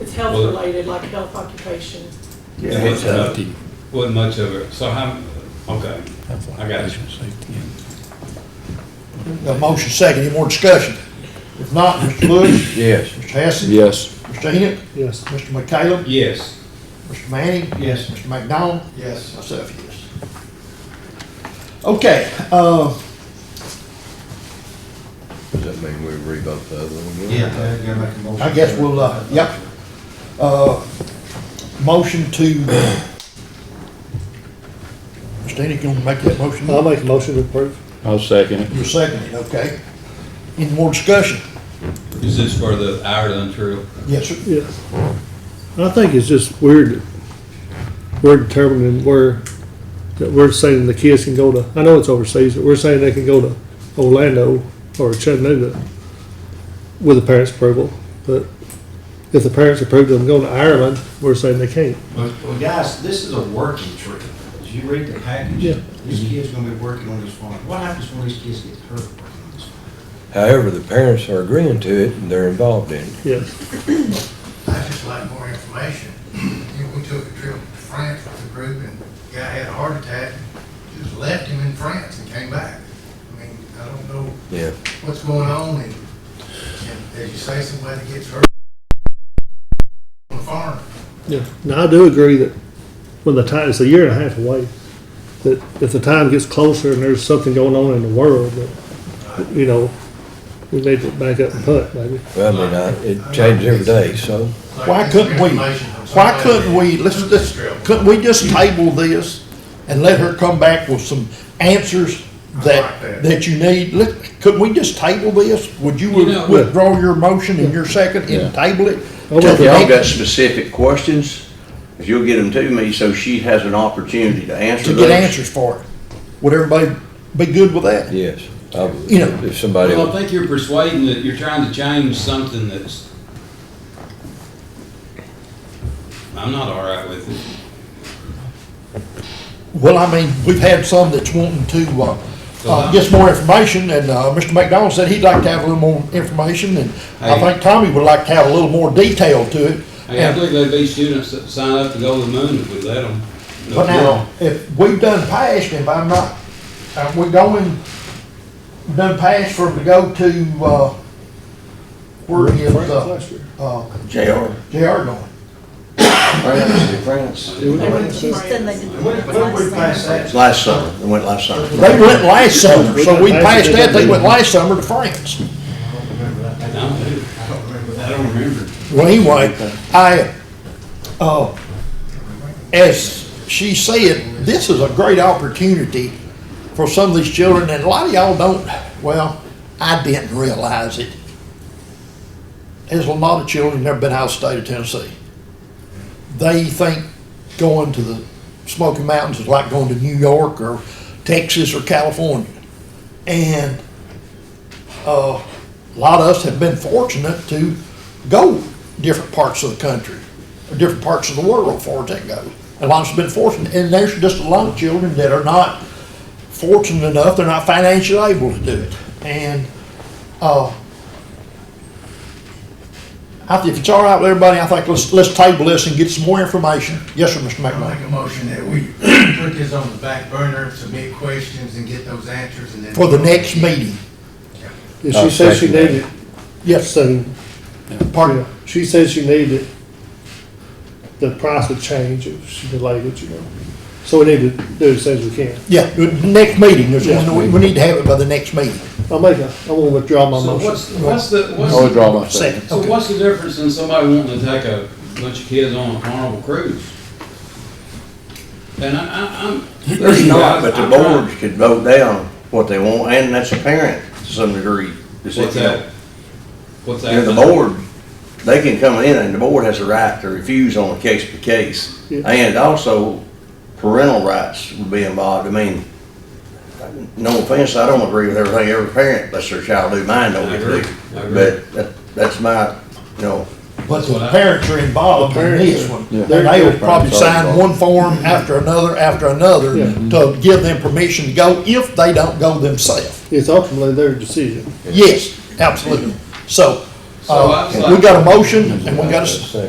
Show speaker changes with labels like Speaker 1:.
Speaker 1: It's health
Speaker 2: Well-
Speaker 1: related, like health occupation.
Speaker 2: Yeah,
Speaker 3: Health
Speaker 2: it's not-
Speaker 3: safety.
Speaker 2: Wasn't much of it, so how, okay,
Speaker 3: Health
Speaker 2: I got you.
Speaker 3: occupational safety, yeah.
Speaker 4: Got a motion second, any more discussion? If not, Mr. Lewis,
Speaker 3: Yes.
Speaker 4: Mr. Hassan,
Speaker 3: Yes.
Speaker 4: Mr. Enoch,
Speaker 5: Yes.
Speaker 4: Mr. McCallum,
Speaker 2: yes.
Speaker 4: Mr. Manning,
Speaker 2: Yes.
Speaker 4: Mr. McDonald,
Speaker 5: Yes.
Speaker 4: myself, yes. Okay, uh,
Speaker 6: Does that mean we revote the other one?
Speaker 5: Yeah,
Speaker 6: again?
Speaker 5: I gotta make a motion.
Speaker 4: I guess we'll, uh, yep. uh, motion to, Mr. Enoch, you wanna make that motion?
Speaker 5: I'll make a motion to approve.
Speaker 3: I'll second it.
Speaker 4: You're seconding, okay. Any more discussion?
Speaker 2: Is this for the Ireland trail?
Speaker 4: Yes, sir.
Speaker 5: Yes. I think it's just weird, that we're determining where, that we're saying the kids can go to, I know it's overseas, but we're saying they can go to Orlando or Chattanooga with the parents' approval, but if the parents approve them going to Ireland, we're saying they can't.
Speaker 7: Well, well, guys, this is a working trip. As you read the
Speaker 5: Yeah.
Speaker 7: package, these kid's gonna be working on this farm. What happens when these kids get hurt working on this farm?
Speaker 6: However, the parents are agreeing to it and they're involved in it.
Speaker 5: Yes,
Speaker 8: I'd just like more information. You know, we took a trip to France with a group and the guy had a heart attack, just left him in France and came back. I mean, I don't know
Speaker 6: Yeah.
Speaker 8: what's going on and, and as you say, somebody gets hurt on the farm.
Speaker 5: yeah. Now, I do agree that when the time, it's a year and a half away, that if the time gets closer and there's something going on in the world, that, you know, we need to back up and putt, maybe.
Speaker 6: Well, I mean, I, it changes every day, so.
Speaker 8: Like,
Speaker 4: Why
Speaker 8: get
Speaker 4: couldn't
Speaker 8: some
Speaker 4: we,
Speaker 8: information
Speaker 4: why
Speaker 8: from somebody
Speaker 4: couldn't
Speaker 8: that
Speaker 4: we, let's,
Speaker 8: took
Speaker 4: let's,
Speaker 8: the trip.
Speaker 4: couldn't we just table this and let her come back with some answers
Speaker 8: like
Speaker 4: that,
Speaker 8: that.
Speaker 4: that you need? Let, couldn't we just table this? Would you
Speaker 2: You know-
Speaker 4: withdraw your motion and your second
Speaker 3: Yeah.
Speaker 4: and table it?
Speaker 5: I
Speaker 4: till
Speaker 5: would-
Speaker 4: the
Speaker 9: If y'all got
Speaker 4: next-
Speaker 9: specific questions, if you'll get them to me, so she has an opportunity to answer
Speaker 4: To
Speaker 9: those.
Speaker 4: get answers for it. Would everybody be good with that?
Speaker 6: Yes. I would-
Speaker 4: You know-
Speaker 6: If somebody,
Speaker 2: Well, I think you're persuading that you're trying to change something that's, I'm not all right with it.
Speaker 4: Well, I mean, we've had some that's wanting to, uh,
Speaker 2: Uh-huh.
Speaker 4: uh, get some more information, and, uh, Mr. McDonald said he'd like to have a little more information, and I
Speaker 2: Hey.
Speaker 4: think Tommy would like to have a little more detail to it.
Speaker 2: Hey, I believe there'd be students that sign up to go to the moon if we let them.
Speaker 4: But now, if we've done past, if I'm not, are we going, done past for to go to, uh, where is, uh,
Speaker 5: Last year.
Speaker 4: uh,
Speaker 9: JR.
Speaker 4: JR going?
Speaker 6: France, if France.
Speaker 1: They went to
Speaker 10: She said
Speaker 1: France.
Speaker 10: they didn't.
Speaker 7: What if, what if we pass that?
Speaker 9: It's last summer, they went last summer.
Speaker 4: They went last summer, so we passed that, they went last summer to France.
Speaker 7: I don't remember that.
Speaker 2: I don't do.
Speaker 7: I don't remember
Speaker 2: I
Speaker 7: that.
Speaker 2: don't remember.
Speaker 4: Well, anyway, I, uh, as she said, this is a great opportunity for some of these children, and a lot of y'all don't, well, I didn't realize it. There's a lot of children that never been out of the state of Tennessee. They think going to the Smoky Mountains is like going to New York or Texas or California. And uh, a lot of us have been fortunate to go different parts of the country, or different parts of the world as far as that goes. A lot of us have been fortunate, and there's just a lot of children that are not fortunate enough, they're not financially able to do it. And, uh, I think if it's all right with everybody, I think let's, let's table this and get some more information. Yes, sir, Mr.
Speaker 8: I'll
Speaker 4: McMillan.
Speaker 8: make a motion that we put this on the back burner, submit questions and get those answers and then.
Speaker 4: For the next meeting.
Speaker 5: If
Speaker 6: I'll
Speaker 5: she says she
Speaker 6: second that.
Speaker 5: needed,
Speaker 4: Yes, sir.
Speaker 5: then,
Speaker 4: Pardon?
Speaker 5: she says she needed, the price would change if she delayed it, you know. So we need to do it as soon as we can.
Speaker 4: Yeah, the next meeting, there's,
Speaker 5: Yeah.
Speaker 4: we, we need to have it by the next meeting.
Speaker 5: I'll make a, I'm gonna withdraw my
Speaker 2: So
Speaker 5: motion.
Speaker 2: what's, what's the, what's
Speaker 4: Oh,
Speaker 3: I'll
Speaker 2: the
Speaker 3: withdraw my second.
Speaker 4: Second,
Speaker 2: So
Speaker 4: okay.
Speaker 2: what's the difference in somebody wanting to take a bunch of kids on a carnival cruise? And I, I, I'm.
Speaker 9: There's not, but the
Speaker 2: I'm trying-
Speaker 9: boards could vote down what they want, and that's a parent to some degree. Is it,
Speaker 2: What's
Speaker 9: you know,
Speaker 2: that? What's that?
Speaker 9: You know, the board, they can come in, and the board has a right to refuse on a case by case.
Speaker 5: Yeah.
Speaker 9: And also parental rights would be involved. I mean, no offense, I don't agree with everything every parent lets their child do. Mine don't
Speaker 2: I
Speaker 9: agree.
Speaker 2: agree, I agree.
Speaker 9: But that, that's my, you know,
Speaker 4: But
Speaker 2: That's what
Speaker 4: the
Speaker 2: I-
Speaker 4: parents are involved in this one.
Speaker 3: Yeah.
Speaker 4: And they will probably
Speaker 6: Parents are
Speaker 4: sign
Speaker 6: involved.
Speaker 4: one form after another, after another,
Speaker 5: Yeah.
Speaker 4: to give them permission to go if they don't go themselves.
Speaker 5: It's ultimately their decision.
Speaker 4: Yes, absolutely. So,
Speaker 2: So I
Speaker 4: uh,
Speaker 2: was like-
Speaker 4: we got a motion and we got a, s-
Speaker 6: Second.